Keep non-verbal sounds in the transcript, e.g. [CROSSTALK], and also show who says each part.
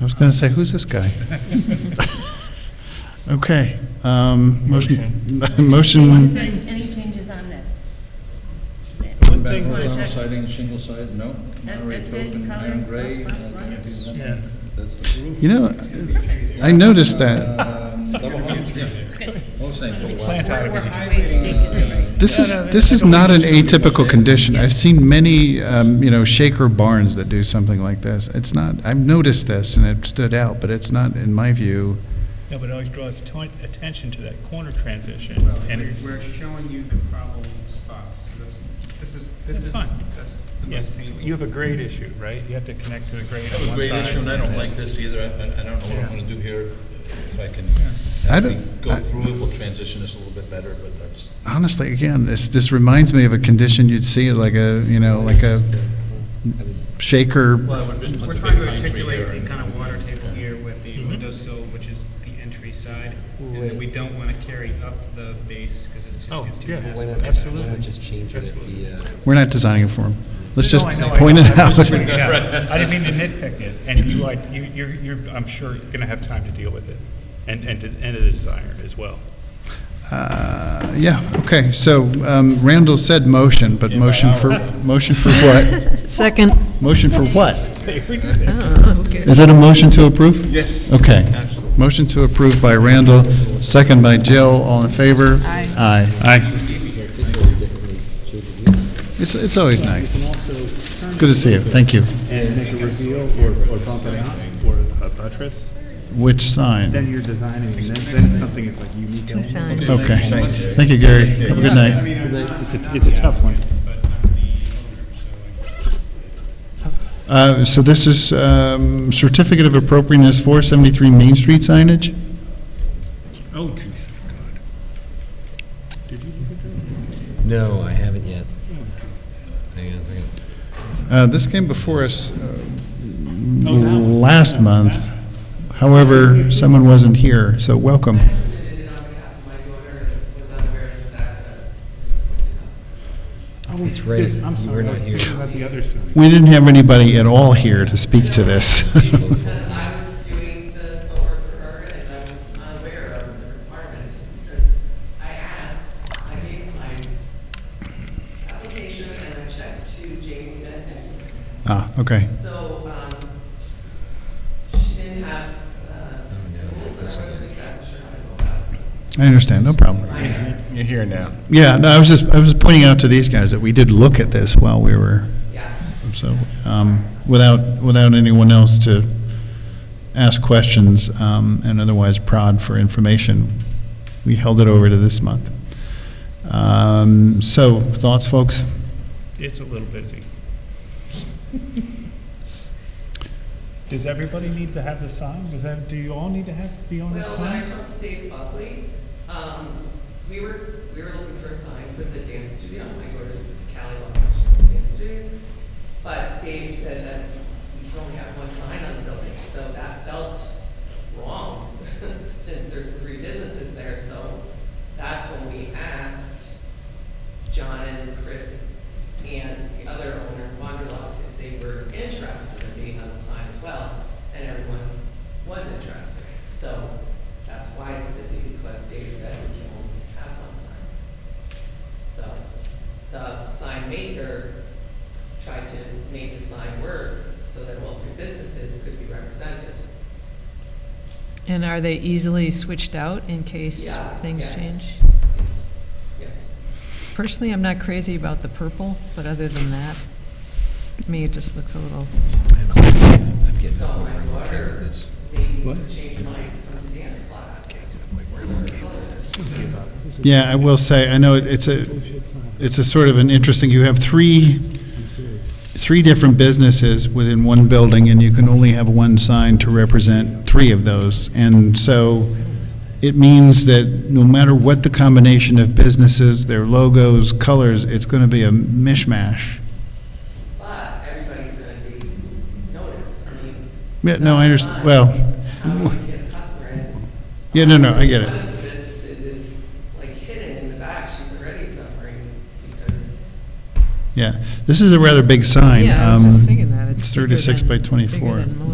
Speaker 1: I was going to say, who's this guy? Okay, um, motion, [LAUGHS]
Speaker 2: Is
Speaker 1: motion,
Speaker 2: there any changes on this?
Speaker 3: One thing
Speaker 2: that-
Speaker 3: Horizontal siding, shingle siding, no. Monterey
Speaker 2: that's good,
Speaker 3: oak and
Speaker 2: color,
Speaker 3: iron gray.
Speaker 2: black,
Speaker 3: uh,
Speaker 2: black, black.
Speaker 4: Yeah.
Speaker 3: That's the roof.
Speaker 1: you know, I noticed that.
Speaker 3: Um, Double hung, yeah. Oh, All same.
Speaker 4: Plant out of it.
Speaker 1: This is, this is not an atypical condition. I've seen many, um, you know, shaker barns that do something like this. It's not, I've noticed this and it stood out, but it's not, in my view,
Speaker 4: No, but it always draws atten- attention to that corner transition,
Speaker 5: Well,
Speaker 4: and
Speaker 5: we're-
Speaker 4: it's,
Speaker 5: We're showing you the problem spots, so that's, this is, this is,
Speaker 4: That's fine.
Speaker 5: that's the
Speaker 4: yes,
Speaker 5: most painful.
Speaker 4: you have a grade issue, right? You have to connect to a grade on
Speaker 3: That was a
Speaker 4: one
Speaker 3: great issue, and I don't
Speaker 4: side.
Speaker 3: like this either. I, I- I don't know what I'm gonna do here. If I can,
Speaker 1: I
Speaker 3: as we
Speaker 1: don't-
Speaker 3: go
Speaker 1: I-
Speaker 3: through it, we'll transition this a little bit better, but that's,
Speaker 1: honestly, again, this, this reminds me of a condition you'd see at like a, you know, like a shaker
Speaker 3: well, I would just
Speaker 5: We're
Speaker 3: put the
Speaker 5: trying
Speaker 3: big
Speaker 5: to
Speaker 3: pine tree
Speaker 5: articulate the
Speaker 3: there.
Speaker 5: kind of water table here with
Speaker 4: Mm-hmm.
Speaker 5: the windowsill, which is the entry side, and then we don't want to carry up the base, because it just
Speaker 4: Oh,
Speaker 5: gets too
Speaker 4: yeah.
Speaker 6: Why
Speaker 5: massive.
Speaker 6: not, why not just change it at the, uh,
Speaker 1: We're not designing it for them. Let's just
Speaker 4: No, I know, I
Speaker 1: point
Speaker 4: know.
Speaker 1: it
Speaker 4: I was
Speaker 1: out.
Speaker 4: [LAUGHS] just pointing it out. I didn't mean to nitpick it, and you, like, you, you're, you're, I'm sure you're gonna have time to deal with it, and, and, and the designer as well. [LAUGHS]
Speaker 1: Uh, Yeah, okay, so um, Randall said motion, but motion for, [LAUGHS] motion for what?
Speaker 7: Second.
Speaker 1: Motion for what?
Speaker 7: Okay.
Speaker 1: Is that a motion to approve?
Speaker 3: Yes.
Speaker 1: Okay. Motion to approve by Randall, second by Jill, all in favor?
Speaker 7: Aye.
Speaker 1: Aye. Aye.
Speaker 6: differently shaded units?
Speaker 1: It's, it's always nice. Good to see you, thank you.
Speaker 8: and make a reveal or, or bump it out or a buttress,
Speaker 1: Which sign?
Speaker 8: then you're designing, and then, then something is like unique. element.
Speaker 7: Sign.
Speaker 1: Okay. Thank you, Gary. Have a good night.
Speaker 8: It's a, it's a tough one.
Speaker 1: Uh, So this is um, certificate of appropriateness, 473 Main Street signage?
Speaker 4: Oh, Jesus, God.
Speaker 6: No, I haven't yet. Hang on a second.
Speaker 1: Uh, This came before us uh, last month. However, someone wasn't here, so welcome.
Speaker 9: submitted it on behalf of my daughter and was unaware of the fact that I was supposed to come.
Speaker 8: Oh,
Speaker 6: It's right.
Speaker 8: this, I'm
Speaker 6: We're
Speaker 8: sorry, I
Speaker 6: not
Speaker 8: was
Speaker 6: here.
Speaker 8: thinking about the other side.
Speaker 1: We didn't have anybody at all here to speak to [LAUGHS] this.
Speaker 9: Because I was doing the footwork for her and I was unaware of the requirement because I asked, I gave my application and I checked to Jamie Benson.
Speaker 1: Ah, okay.
Speaker 9: So, um, she didn't have, uh,
Speaker 6: no,
Speaker 9: rules and I wasn't exactly sure how to go about it. so.
Speaker 1: I understand, no problem.
Speaker 3: You're here now.
Speaker 1: Yeah, no, I was just, I was pointing out to these guys that we did look at this while we were, so, um, without, without anyone else to ask questions um, and otherwise prod for information, we held it over to this month. Um, So, thoughts, folks?
Speaker 4: It's a little busy. Does everybody need to have the sign? Does that, do you all need to have, be on that
Speaker 9: Well, when I
Speaker 4: sign?
Speaker 9: talked to Dave Buckley, um, we were, we were looking for a sign for the dance studio, my daughter's Cali Lounge Dance Studio. But Dave said that we can only have one sign on the building, so that felt wrong, [LAUGHS] since there's three businesses there, so that's when we asked John and Chris and the other owner, Wanderlust, if they were interested in being on the sign as well, and everyone was interested. So that's why it's busy, because Dave said we can only have one sign. So the sign maker tried to make the sign work so that all three businesses could be represented.
Speaker 7: And are they easily switched out in case
Speaker 9: Yeah,
Speaker 7: things
Speaker 9: yes.
Speaker 7: change?
Speaker 9: It's- Yes.
Speaker 7: Personally, I'm not crazy about the purple, but other than that, to me, it just looks a little,
Speaker 6: I'm getting
Speaker 9: So
Speaker 6: bored.
Speaker 9: my
Speaker 6: I'm tired of
Speaker 9: daughter
Speaker 6: this.
Speaker 9: maybe
Speaker 4: What?
Speaker 9: changed her mind, come to dance class.
Speaker 1: Yeah, I will say, I know it- it's a,
Speaker 8: Bullshit sign.
Speaker 1: it's a sort of an interesting, you have three,
Speaker 8: I'm serious.
Speaker 1: three different businesses within one building, and you can only have one sign to represent three of those. And so it means that no matter what the combination of businesses, their logos, colors, it's going to be a mishmash.
Speaker 9: But everybody's gonna be noticed, I mean.
Speaker 1: Yeah, no, I understand, well,
Speaker 9: How do you get a customer in?
Speaker 1: yeah, no, no, I get
Speaker 9: One
Speaker 1: it.
Speaker 9: of the businesses is like hidden in the back, she's already suffering because it's,
Speaker 1: Yeah, this is a rather big sign.
Speaker 7: yeah, I was
Speaker 1: um,
Speaker 7: just thinking that.
Speaker 1: it's
Speaker 7: bigger
Speaker 1: 36
Speaker 7: than-
Speaker 1: by
Speaker 7: bigger
Speaker 1: 24.
Speaker 7: than most.